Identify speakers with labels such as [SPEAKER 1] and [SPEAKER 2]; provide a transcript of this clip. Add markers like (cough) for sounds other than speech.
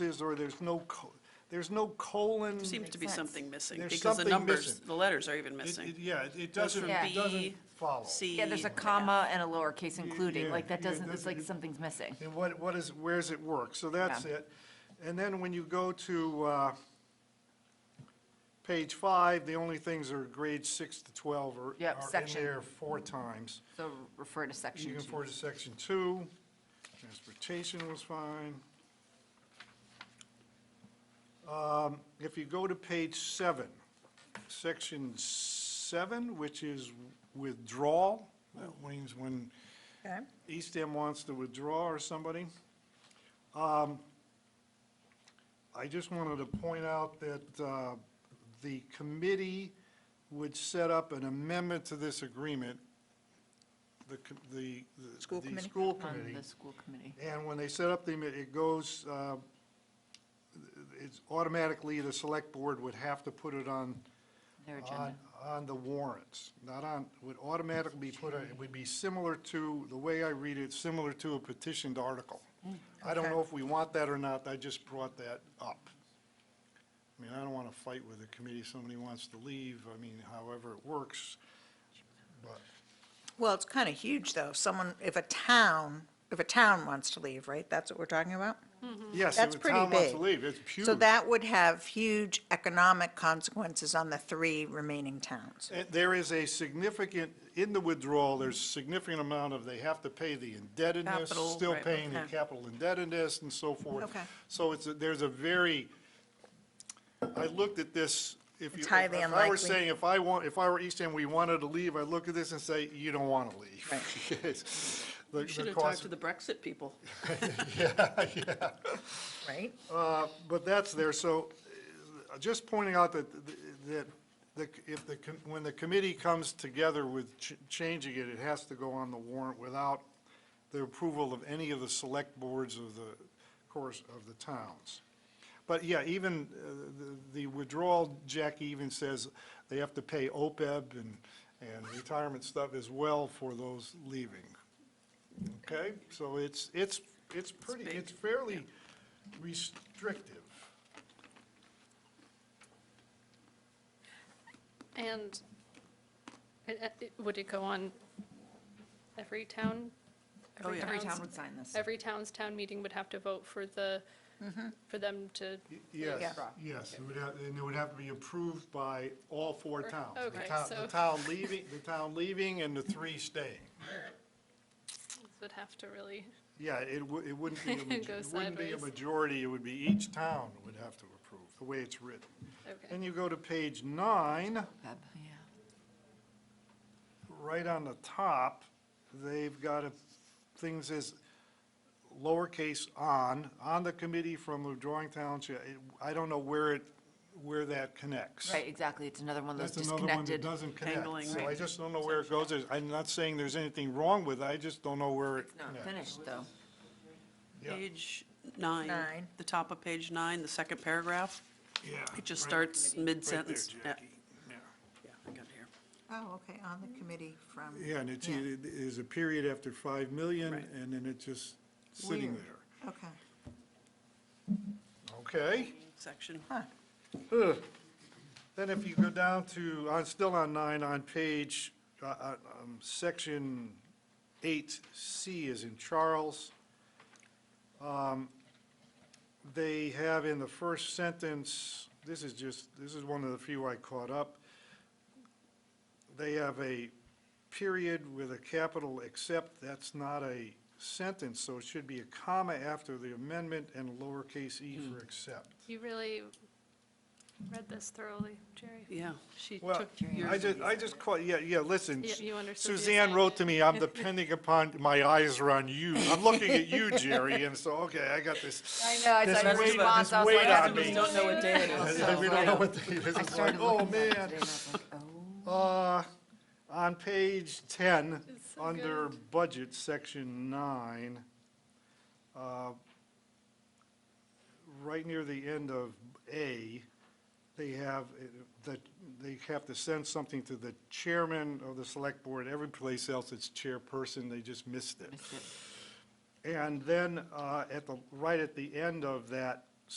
[SPEAKER 1] is, or there's no, co- there's no colon.
[SPEAKER 2] Seems to be
[SPEAKER 3] Mm, sense.
[SPEAKER 2] something missing,
[SPEAKER 1] There's
[SPEAKER 2] because the
[SPEAKER 1] something
[SPEAKER 2] numbers,
[SPEAKER 1] missing.
[SPEAKER 2] the letters are even
[SPEAKER 1] It- it-
[SPEAKER 2] missing.
[SPEAKER 1] Yeah, it- it
[SPEAKER 2] Goes
[SPEAKER 1] doesn't,
[SPEAKER 2] from
[SPEAKER 3] Yeah.
[SPEAKER 1] it
[SPEAKER 2] B,
[SPEAKER 1] doesn't follow.
[SPEAKER 2] C.
[SPEAKER 3] Yeah, there's a comma and a lowercase
[SPEAKER 1] yeah,
[SPEAKER 3] including, like, that
[SPEAKER 1] yeah,
[SPEAKER 3] doesn't, it's
[SPEAKER 1] that's-
[SPEAKER 3] like something's missing.
[SPEAKER 1] And what, what is, where's it work? So that's
[SPEAKER 3] Yeah.
[SPEAKER 1] it. And then when you go to uh, page five, the only things are grades six to 12 are
[SPEAKER 3] Yep,
[SPEAKER 1] are in
[SPEAKER 3] section.
[SPEAKER 1] there four times.
[SPEAKER 3] So refer to
[SPEAKER 1] You
[SPEAKER 3] section
[SPEAKER 1] can
[SPEAKER 3] two.
[SPEAKER 1] forward to section two. Transportation was fine. Um, If you go to page seven, section seven, which is withdrawal, that means when
[SPEAKER 4] Okay.
[SPEAKER 1] East End wants to withdraw or somebody. Um, I just wanted to point out that uh, the committee would set up an amendment to this agreement, the, co- the. the-
[SPEAKER 4] School
[SPEAKER 1] the
[SPEAKER 4] committee?
[SPEAKER 1] school
[SPEAKER 3] On
[SPEAKER 1] committee.
[SPEAKER 3] the school committee.
[SPEAKER 1] And when they set up the, it goes, uh, it's automatically, the select board would have to put it on
[SPEAKER 3] Their agenda.
[SPEAKER 1] on, on the warrants, not on, would automatically be put, on- it would be similar to, the way I read it, similar to a petitioned article.
[SPEAKER 4] Mm,
[SPEAKER 1] I don't know if we want that or not, I just brought that up. I mean, I don't want to fight with the committee, somebody wants to leave, I mean, however it works, but,
[SPEAKER 4] Well, it's kind of huge, though. Someone, if a town, if a town wants to leave, right? That's what we're talking about?
[SPEAKER 1] yes, if
[SPEAKER 4] Mm. That's
[SPEAKER 1] the
[SPEAKER 4] pretty
[SPEAKER 1] town wants to
[SPEAKER 4] big.
[SPEAKER 1] leave, it's huge.
[SPEAKER 4] So that would have huge economic consequences on the three remaining towns.
[SPEAKER 1] Uh, There is a significant, in the withdrawal, there's significant amount of, they have to pay the indebtedness,
[SPEAKER 2] Capital,
[SPEAKER 1] still
[SPEAKER 2] right,
[SPEAKER 1] paying the
[SPEAKER 4] okay.
[SPEAKER 1] capital indebtedness and so forth.
[SPEAKER 4] Okay.
[SPEAKER 1] So it's, a- there's a very, I looked at this, if you.
[SPEAKER 4] It's highly
[SPEAKER 1] If I were
[SPEAKER 4] unlikely.
[SPEAKER 1] saying, if I want, if I were East End, we wanted to leave, I'd look at this and say, you don't want to leave. (laughs) Yes. The-
[SPEAKER 2] You should
[SPEAKER 1] the
[SPEAKER 2] have talked
[SPEAKER 1] cost-
[SPEAKER 2] to the Brexit people.
[SPEAKER 1] Yeah, yeah.
[SPEAKER 4] Right?
[SPEAKER 1] Uh, But that's there, so uh, just pointing out that, that the- if the, com- when the committee comes together with ch- changing it, it has to go on the warrant without the approval of any of the select boards of the, course, of the towns. But yeah, even uh, the- the withdrawal, Jackie even says they have to pay OPEB and, and retirement stuff as well for those leaving. Okay, so it's, it's, it's pretty,
[SPEAKER 2] big,
[SPEAKER 1] it's fairly restrictive.
[SPEAKER 5] And it- it- it- would it go on every town?
[SPEAKER 2] Oh, yeah.
[SPEAKER 3] Every
[SPEAKER 5] town's-
[SPEAKER 3] town would sign this.
[SPEAKER 5] Every town's town meeting would have to vote for the,
[SPEAKER 2] Mm-hmm.
[SPEAKER 5] for them to,
[SPEAKER 1] Y- Yes,
[SPEAKER 4] Yeah.
[SPEAKER 1] yes, it would have, and it would have to be approved by all four towns. The
[SPEAKER 5] okay,
[SPEAKER 1] town- The
[SPEAKER 5] so-
[SPEAKER 1] town leaving, the town leaving and the three staying.
[SPEAKER 5] would have to really,
[SPEAKER 1] Yeah, it wou- it wouldn't be,
[SPEAKER 5] (laughs)
[SPEAKER 1] a maj-
[SPEAKER 5] Go
[SPEAKER 1] it wouldn't be a
[SPEAKER 5] sideways.
[SPEAKER 1] majority, it would be each town would have to approve, the way it's written.
[SPEAKER 5] okay.
[SPEAKER 1] Then you go to page nine,
[SPEAKER 3] Feb, yeah.
[SPEAKER 1] right on the top, they've got a, things as lowercase on, on the committee from withdrawing towns. yeah, it- I don't know where it, where that connects.
[SPEAKER 3] Right, exactly. It's another one of those
[SPEAKER 1] That's another one that
[SPEAKER 3] disconnected.
[SPEAKER 1] doesn't connect.
[SPEAKER 2] Angling.
[SPEAKER 1] So I
[SPEAKER 2] Right.
[SPEAKER 1] just don't know where it goes. There's- I'm not saying there's anything wrong with it, I just don't know where it
[SPEAKER 3] Not
[SPEAKER 1] connects.
[SPEAKER 3] finished, though.
[SPEAKER 1] Yeah.
[SPEAKER 2] Page nine,
[SPEAKER 4] Nine.
[SPEAKER 2] the top of page nine, the second paragraph,
[SPEAKER 1] Yeah.
[SPEAKER 2] it just
[SPEAKER 1] right-
[SPEAKER 2] starts
[SPEAKER 1] right there,
[SPEAKER 2] mid-sentence. Yeah,
[SPEAKER 1] Jackie. Yeah.
[SPEAKER 2] yeah, I got it here.
[SPEAKER 4] Oh, okay, on the committee from.
[SPEAKER 1] Yeah, and it's,
[SPEAKER 4] Yeah.
[SPEAKER 1] it is a period after 5 million,
[SPEAKER 2] Right.
[SPEAKER 1] and then it's just sitting
[SPEAKER 3] Weird.
[SPEAKER 1] there.
[SPEAKER 4] Okay.
[SPEAKER 1] Okay?
[SPEAKER 2] Section,
[SPEAKER 1] Ugh. Then if you go down to, on, still on nine, on page, uh, uh, um, section eight C is in Charles. Um, They have in the first sentence, this is just, this is one of the few I caught up. They have a period with a capital except, that's not a sentence, so it should be a comma after the amendment and lowercase e for except.
[SPEAKER 5] You really read this thoroughly, Jerry.
[SPEAKER 2] yeah, she
[SPEAKER 1] Well,
[SPEAKER 2] took your.
[SPEAKER 1] I just, I just caught, yeah, yeah, listen.
[SPEAKER 5] Yeah, you understood the
[SPEAKER 1] Suzanne wrote to me, I'm depending upon, my eyes are on you. I'm looking at you, Jerry, and so, okay, I got
[SPEAKER 3] (laughs)
[SPEAKER 1] this.
[SPEAKER 3] I know, I
[SPEAKER 1] This
[SPEAKER 3] saw your
[SPEAKER 1] weight-
[SPEAKER 3] response.
[SPEAKER 1] this
[SPEAKER 3] I was
[SPEAKER 1] weight
[SPEAKER 3] like,
[SPEAKER 1] on
[SPEAKER 3] I
[SPEAKER 1] me.
[SPEAKER 3] don't know what day it is.
[SPEAKER 1] And We don't know what the,
[SPEAKER 3] (laughs) I
[SPEAKER 1] (laughs) it's like,
[SPEAKER 3] started
[SPEAKER 1] oh,
[SPEAKER 3] looking at that
[SPEAKER 1] man.
[SPEAKER 3] today, and I was like, oh.
[SPEAKER 1] Uh, on page ten,
[SPEAKER 5] It's so
[SPEAKER 1] under budget, section nine, uh, right near the end of A, they have, uh, that, they have to send something to the chairman of the select board. Every place else it's chairperson, they just missed it.
[SPEAKER 3] Missed it.
[SPEAKER 1] And then, uh, at the, right at the end of that